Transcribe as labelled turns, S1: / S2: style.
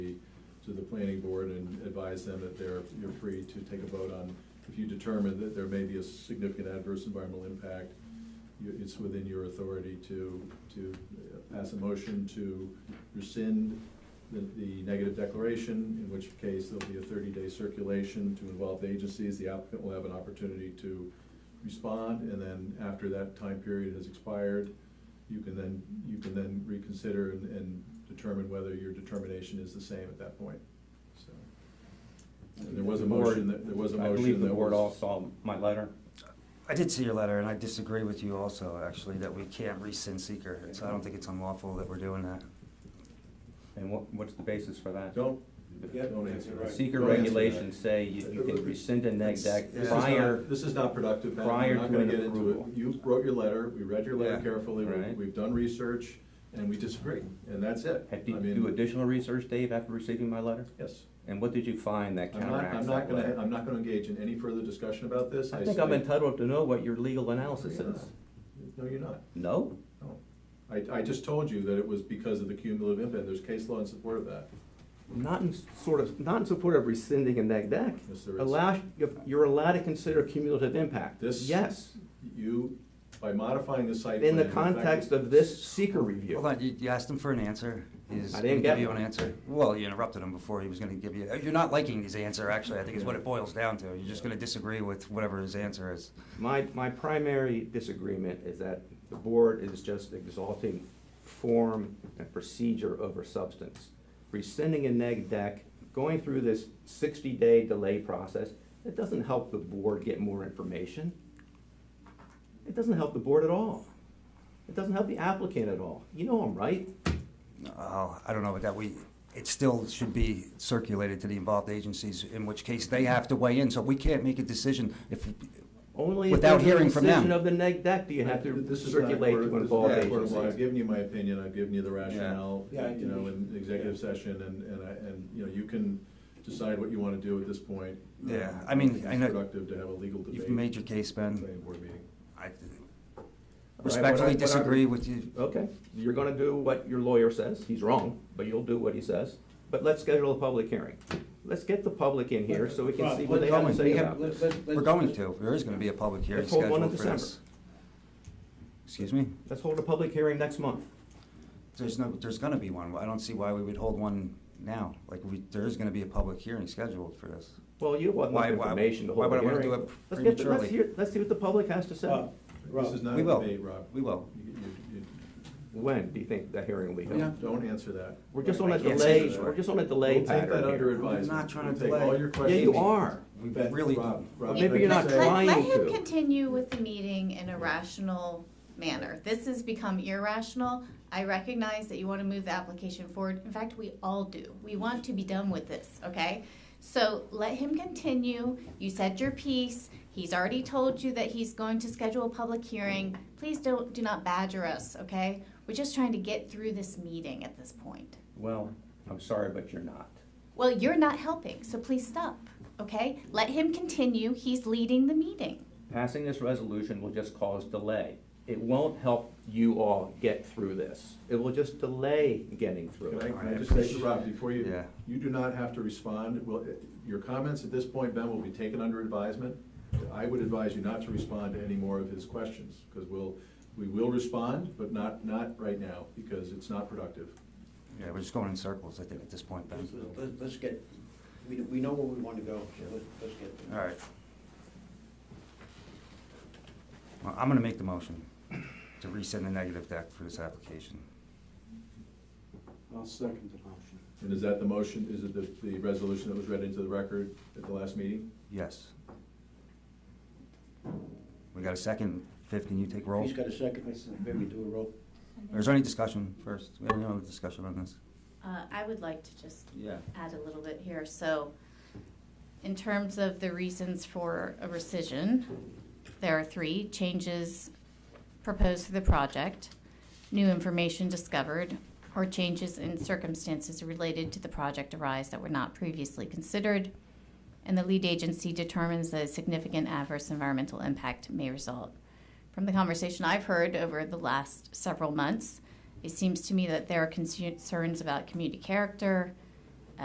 S1: to the planning board and advise them that they're, you're free to take a vote on, if you determine that there may be a significant adverse environmental impact, you- it's within your authority to, to uh, pass a motion to rescind the, the negative declaration, in which case there'll be a thirty-day circulation to involve the agencies, the applicant will have an opportunity to respond, and then after that time period has expired, you can then, you can then reconsider and, and determine whether your determination is the same at that point, so. And there was a
S2: The board-
S1: motion that, there was a motion
S2: I believe the
S1: that
S2: board
S1: was-
S2: all saw my letter.
S3: I did see your letter, and I disagree with you also, actually, that we can't rescind seeker. So I don't think it's unlawful that we're doing that.
S2: And what, what's the basis for that?
S1: Don't,
S4: Yeah,
S1: don't answer
S4: right.
S1: that.
S2: Seeker
S1: Don't answer
S2: regulations
S1: that.
S2: say you you can rescind a neg deck
S3: This is not-
S2: prior,
S1: This is not productive, Pat. We're
S2: prior
S1: not
S2: to
S1: gonna
S2: an
S1: get into it.
S2: approval.
S1: You wrote your letter, we read your letter
S2: Yeah.
S1: carefully, we-
S2: Right.
S1: we've done research, and we disagree, and that's it.
S2: had you
S1: I
S2: do
S1: mean,
S2: additional research, Dave, after receiving my letter?
S1: Yes.
S2: And what did you find that
S1: I'm not, I'm
S2: counteracts
S1: not
S2: that
S1: gonna,
S2: letter?
S1: I'm not gonna engage in any further discussion about this.
S2: I
S1: s-
S2: think I'm entitled to know what your legal analysis
S1: No, you're
S2: is.
S1: not. No, you're not.
S2: No?
S1: No. I, I just told you that it was because of the cumulative impact. There's case law in support of that.
S2: Not in sort of, not in support of rescinding a neg deck.
S1: Yes, there is.
S2: Allow, you're allowed to consider cumulative impact.
S1: This-
S2: Yes,
S1: You, by modifying the site
S2: in the
S1: plan, fact,
S2: context of this seeker review.
S3: Hold on, you, you asked him for an answer. He's
S2: I
S3: gonna
S2: didn't
S3: give
S2: get
S3: you an
S2: one.
S3: answer. Well, you interrupted him before he was gonna give you, uh, you're not liking his answer, actually, I think is what it boils down to. You're just gonna disagree with whatever his answer is.
S2: My, my primary disagreement is that the board is just exalting form and procedure over substance. Rescinding a neg deck, going through this sixty-day delay process, it doesn't help the board get more information. It doesn't help the board at all. It doesn't help the applicant at all. You know I'm right.
S3: Uh, I don't know about that. We, it still should be circulated to the involved agencies, in which case they have to weigh in, so we can't make a decision if,
S2: Only if
S3: Without
S2: there's a
S3: hearing from them.
S2: rescission of the neg deck, do you have to
S1: This is not a
S2: circulate
S1: court-
S2: to
S1: this is
S2: involve
S1: not a court of law. I've
S2: agencies.
S1: given you my opinion, I've given you the rationale,
S4: Yeah, I
S1: you know,
S4: think-
S1: in executive session, and, and, I- and, you know, you can decide what you wanna do at this point.
S3: Yeah,
S1: Um,
S3: I mean,
S1: think
S3: I
S1: It's
S3: know-
S1: productive to have a legal debate.
S3: you've made your case, Ben.
S1: Planning board meeting.
S3: I
S2: I-
S3: respectfully
S2: what I-
S3: disagree with you.
S2: Okay, you're gonna do what your lawyer says, he's wrong, but you'll do what he says. But let's schedule a public hearing. Let's get the public in here so we can see what they have to say about
S4: Let's-
S2: this.
S4: let's-
S3: We're going to, there is gonna be a public hearing
S2: Let's hold one in
S3: scheduled for this. Excuse me?
S2: Let's hold a public hearing next month.
S3: There's no, there's gonna be one. I don't see why we would hold one now. Like, we, there is gonna be a public hearing scheduled for this.
S2: Well, you want enough
S3: Why- why-
S2: information to
S3: why
S2: hold
S3: would
S2: a
S3: I wanna do
S2: hearing.
S3: it
S2: Let's get, the- let's
S3: prematurely?
S2: hear, let's see what the public has to say.
S4: Rob,
S1: This is
S4: Rob,
S1: not
S3: We
S1: a
S3: will.
S1: debate, Rob.
S3: We will.
S1: You- you-
S2: When do you think that hearing will be
S1: you-
S2: held?
S1: Don't answer that.
S2: We're just on
S3: I
S2: a
S3: can't say
S2: delay,
S3: for sure.
S2: we're just on a delay
S1: We'll take that
S2: pattern
S1: under
S2: here.
S1: advisement.
S3: not trying to
S1: We'll take
S3: delay.
S1: all your
S3: Yeah,
S2: Yeah,
S1: questions.
S2: you are.
S3: We
S1: Beth,
S3: really
S1: Rob,
S3: don't.
S1: Rob,
S2: Maybe
S1: I'd
S2: you're not
S1: say-
S2: trying-
S5: Let, let him
S2: to.
S5: continue with the meeting in a rational manner. This has become irrational. I recognize that you want to move the application forward. In fact, we all do. We want to be done with this, okay? So let him continue. You said your piece. He's already told you that he's going to schedule a public hearing. Please don't, do not badger us, okay? We're just trying to get through this meeting at this point.
S2: Well, I'm sorry, but you're not.
S5: Well, you're not helping, so please stop, okay? Let him continue. He's leading the meeting.
S2: Passing this resolution will just cause delay. It won't help you all get through this. It will just delay getting through
S1: Can
S2: it.
S1: I, can I just say to Rob, before you,
S3: Yeah.
S1: you do not have to respond, well, it- your comments at this point, Ben, will be taken under advisement. I would advise you not to respond to any more of his questions, because we'll, we will respond, but not, not right now, because it's not productive.
S3: Yeah, we're just going in circles, I think, at this point, Ben.
S4: let's- let's- let's get, we, we know where we want to go, so let's, let's get.
S3: All right. Well, I'm gonna make the motion to resend the negative deck for this application.
S4: I'll second the motion.
S1: And is that the motion, is it the, the resolution that was read into the record at the last meeting?
S3: Yes. We got a second. Fifth, can you take roll?
S4: He's got a second, maybe do a roll.
S3: Is there any discussion first? We have any other discussion on this?
S5: Uh, I would like to just
S3: Yeah.
S5: add a little bit here. So in terms of the reasons for a rescission, there are three changes proposed for the project, new information discovered, or changes in circumstances related to the project arise that were not previously considered. And the lead agency determines that a significant adverse environmental impact may result. From the conversation I've heard over the last several months, it seems to me that there are concerns about community character,